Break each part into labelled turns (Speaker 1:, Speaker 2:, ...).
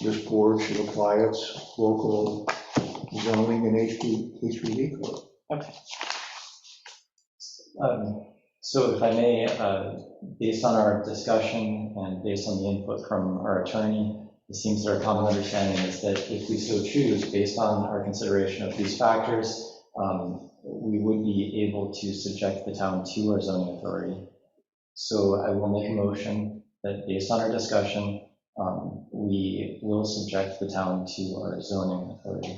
Speaker 1: this board should apply its local zoning and HB HBD code.
Speaker 2: Um, So if I may, uh, based on our discussion and based on the input from our attorney, it seems that our common understanding is that if we so choose, based on our consideration of these factors, um, we would be able to subject the town to our zoning authority. So I will make a motion that based on our discussion, um, we will subject the town to our zoning authority.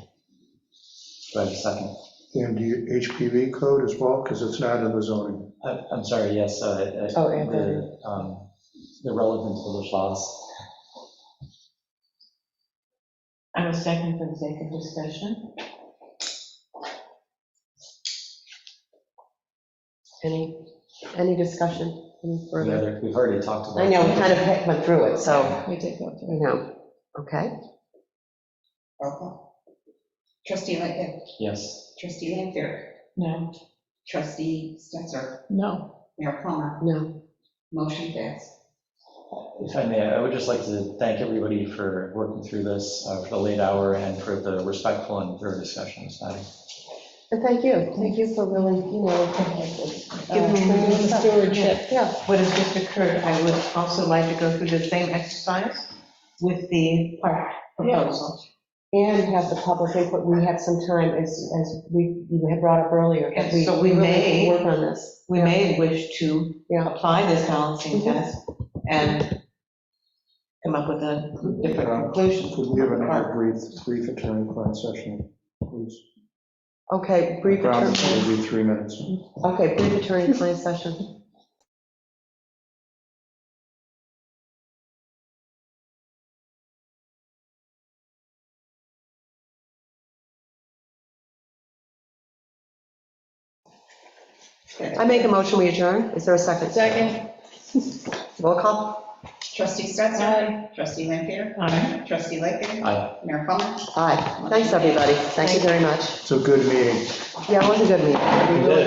Speaker 2: Do I have a second?
Speaker 1: And the HPV code as well, because it's not in the zoning.
Speaker 2: I- I'm sorry, yes. uh, uh,
Speaker 3: Oh, Anthony.
Speaker 2: the, um, The relevant village laws.
Speaker 3: I will second for the sake of discussion.
Speaker 4: Any, any discussion any
Speaker 2: The
Speaker 4: further?
Speaker 2: other- We've already talked about.
Speaker 4: I know, we kind of went through it, so,
Speaker 3: We did go through.
Speaker 4: I know, okay.
Speaker 5: Roll call. Trustee Lightgev.
Speaker 2: Yes.
Speaker 5: Trustee Lanfair.
Speaker 3: No,
Speaker 5: Trustee Stetser.
Speaker 3: no.
Speaker 5: Mayor Plummer.
Speaker 4: No,
Speaker 5: Motion passed.
Speaker 2: If I may, I would just like to thank everybody for working through this, uh, for the late hour and for the respectful and thorough discussion. It's not-
Speaker 4: and thank you, thank you for really, you know, giving
Speaker 3: Um,
Speaker 4: me the
Speaker 3: stewardship.
Speaker 4: Yeah,
Speaker 3: What has just occurred, I would also like to go through the same exercise with the park proposal.
Speaker 4: and have the public input, we have some time, as, as we, you had brought up earlier. that
Speaker 3: And so we
Speaker 4: really
Speaker 3: may-
Speaker 4: Work on this.
Speaker 3: We may wish to
Speaker 4: Yeah,
Speaker 3: apply this balancing
Speaker 5: Mm-hmm.
Speaker 3: test and come up with a different conclusion.
Speaker 1: Could we have another brief, brief attorney-client session, please?
Speaker 4: okay, brief
Speaker 1: Ground
Speaker 4: attorney,
Speaker 1: will be three minutes.
Speaker 4: okay, brief attorney-client session. I make a motion, we adjourn, is there a second?
Speaker 3: Second.
Speaker 4: Roll call?
Speaker 5: Trustee Stetser. Trustee Lanfair.
Speaker 3: Aye.
Speaker 5: Trustee Lightgev.
Speaker 2: I
Speaker 5: Mayor Plummer.
Speaker 4: Aye, thanks, everybody, thank you very much.
Speaker 1: It's a good meeting.
Speaker 4: Yeah, it was a good meeting.